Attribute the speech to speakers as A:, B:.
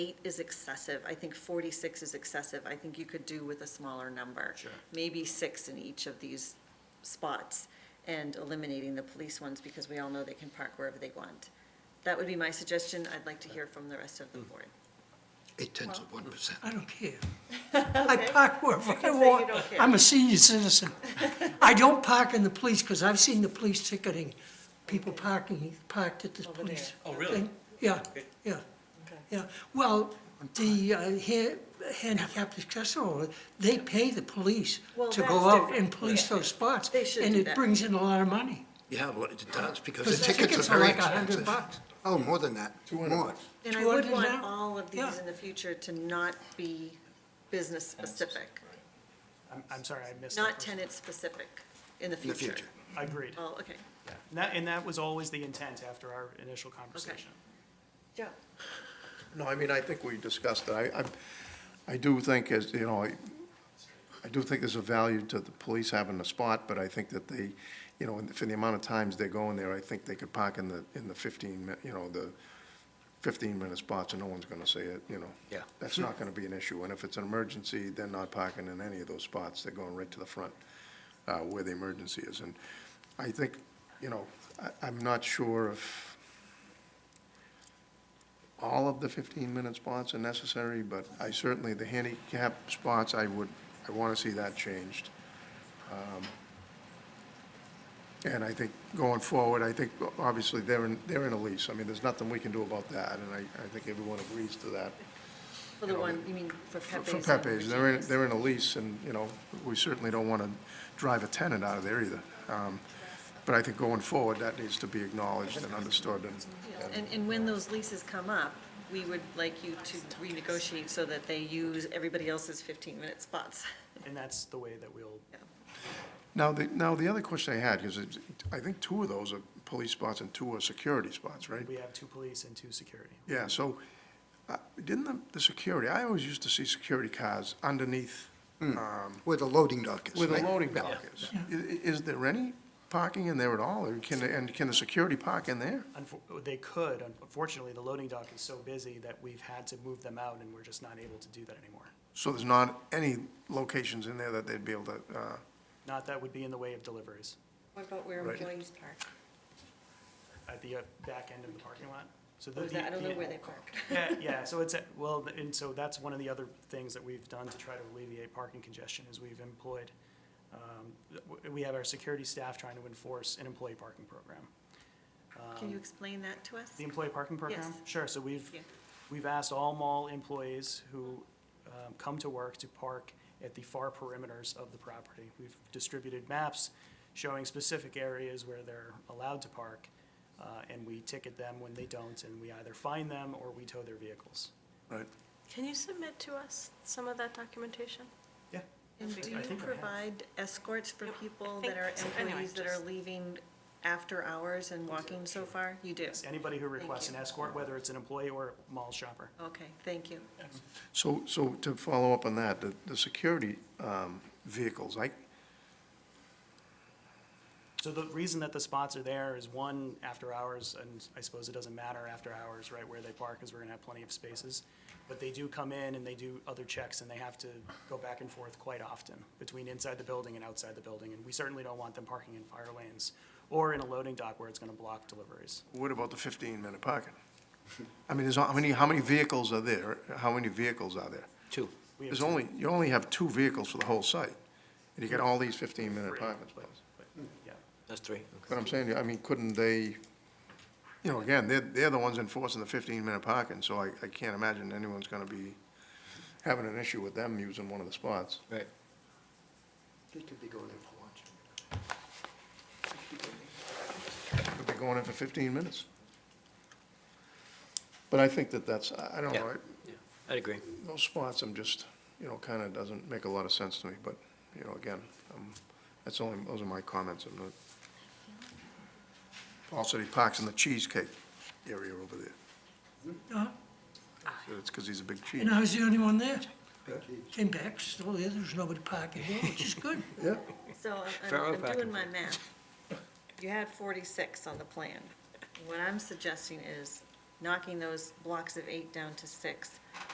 A: Eight is excessive. I think forty-six is excessive. I think you could do with a smaller number.
B: Sure.
A: Maybe six in each of these spots and eliminating the police ones because we all know they can park wherever they want. That would be my suggestion. I'd like to hear from the rest
C: Hmm.
A: of the board.
D: Eight tenths of one percent.
E: I don't care. I park wherever I
A: can say you
E: want.
A: don't care.
E: I'm a senior citizen. I don't park in the police, because I've seen the police ticketing, people parking, parked at the
A: Over there.
E: police.
B: Oh, really?
E: thing. Yeah, yeah, yeah. Well, the uh, ha- handicapped accessible, they pay the police
A: Well,
E: to
A: that's
E: go out
A: different.
E: and police those spots.
A: They should
E: And
A: do
E: it
A: that.
E: brings in a lot of money,
D: Yeah, well, it does, because
E: because
D: the tickets are very
E: like a hundred
D: expensive.
E: bucks.
D: Oh, more than that, more.
A: And I would
E: 200
A: want
E: now?
A: all of these
E: Yeah.
A: in the future to not be business-specific,
F: I'm, I'm sorry, I missed. the
A: not
F: first-
A: tenant-specific in the
D: In the
A: future.
D: future.
F: Agreed.
A: Oh, okay.
F: Yeah. And that, and that was always the intent after our initial conversation.
A: Joe?
C: No, I mean, I think we discussed it. I, I, I do think as, you know, I, I do think there's a value to the police having a spot, but I think that they, you know, for the amount of times they're going there, I think they could park in the, in the fifteen, mi- you know, the fifteen-minute spots and no one's gonna say it, you know.
D: Yeah.
C: That's not gonna be an issue. And if it's an emergency, they're not parking in any of those spots. They're going right to the front, uh, where the emergency is. And I think, you know, I, I'm not sure if, all of the 15-minute spots are necessary, but I certainly, the handicap spots, I would, I want to see that changed. Um, And I think going forward, I think, obviously, they're in, they're in a lease. I mean, there's nothing we can do about that, and I, I think everyone agrees to that.
A: For the one, you mean for
C: For-
A: Pepe's?
C: For
A: and
C: Pepe's, they're in,
A: Regina's.
C: they're in a lease, and, you know, we certainly don't want to drive a tenant out of there either. Um, But I think going forward, that needs to be acknowledged and understood, and
A: And, and when those leases come up, we would like you to renegotiate so that they use everybody else's 15-minute spots.
F: And that's the way that we'll,
C: Now, the, now, the other question I had, because I think two of those are police spots and two are security spots, right?
F: we have two police and two security.
C: Yeah, so, uh, didn't the, the security, I always used to see security cars underneath, um,
D: Where the loading dock is.
C: where the
D: right?
C: loading dock is. I- i- Is there any parking in there at all, or can, the- and can the security park in there?
F: Unfor- They could, unfortunately, the loading dock is so busy that we've had to move them out and we're just not able to do that anymore.
C: So there's not any locations in there that they'd be able to, uh,
F: Not that would be in the way of deliveries.
A: What about where
C: Right.
A: employees park?
F: At the uh, back end of the parking lot. So the-
A: Or is that- I don't know
F: the-
A: where they park.
F: Yeah, yeah, so it's, a- well, and so that's one of the other things that we've done to try to alleviate parking congestion is we've employed, um, w- we have our security staff trying to enforce an employee parking program.
A: Can you explain that to us?
F: The employee parking program?
A: Yes.
F: Sure, so we've,
A: Yeah.
F: we've asked all mall employees who um, come to work to park at the far perimeters of the property. We've distributed maps showing specific areas where they're allowed to park, uh, and we ticket them when they don't, and we either fine them or we tow their vehicles.
C: right?
G: Can you submit to us some of that documentation?
F: Yeah.
A: And do
F: I
A: you
F: think I have.
A: provide escorts for
G: Yep, I
A: people
G: think
A: that are
G: so. Anyway,
A: employees that are
G: just-
A: leaving after hours and walking so far? You do?
F: Anybody who requests
A: you.
F: an escort, whether it's an employee or a mall shopper.
A: Okay, thank you.
C: So, so to follow up on that, the, the security, um, vehicles, I,
F: So the reason that the spots are there is one, after hours, and I suppose it doesn't matter after hours, right, where they park, because we're gonna have plenty of spaces. But they do come in and they do other checks, and they have to go back and forth quite often between inside the building and outside the building. And we certainly don't want them parking in fire lanes or in a loading dock where it's gonna block deliveries.
C: What about the fifteen-minute parking? I mean, there's, how many, how many vehicles are there? How many vehicles are there?
D: Two.
F: We have
C: There's
F: two-
C: only, you only have two vehicles for the whole site, and you get all these fifteen-minute
F: three,
C: parking
F: but-
C: spots.
F: but, Yeah.
D: That's three.
C: But I'm saying, I mean, couldn't they, you know, again, they're, they're the ones enforcing the fifteen-minute parking, so I, I can't imagine anyone's gonna be having an issue with them using one of the spots.
D: Right. They could be going in for lunch.
C: Could be going in for fifteen minutes. But I think that that's, I I don't know,
H: Yeah.
C: I-
H: I'd agree.
C: those spots, I'm just, you know, kind of doesn't make a lot of sense to me, but, you know, again, um, that's only, those are my comments, I'm not. Paul said he parks in the cheesecake area over there,
E: Uh,
C: so it's because he's a big cheese.
E: And I was the only one there. Came back, still there, there was nobody parking there, which is good.
C: Yeah,
A: So I'm-
H: Pharaoh
A: I'm, I'm
H: back
A: doing
H: and
A: my math. You had forty-six on the plan. What I'm suggesting is knocking those blocks of eight down to six.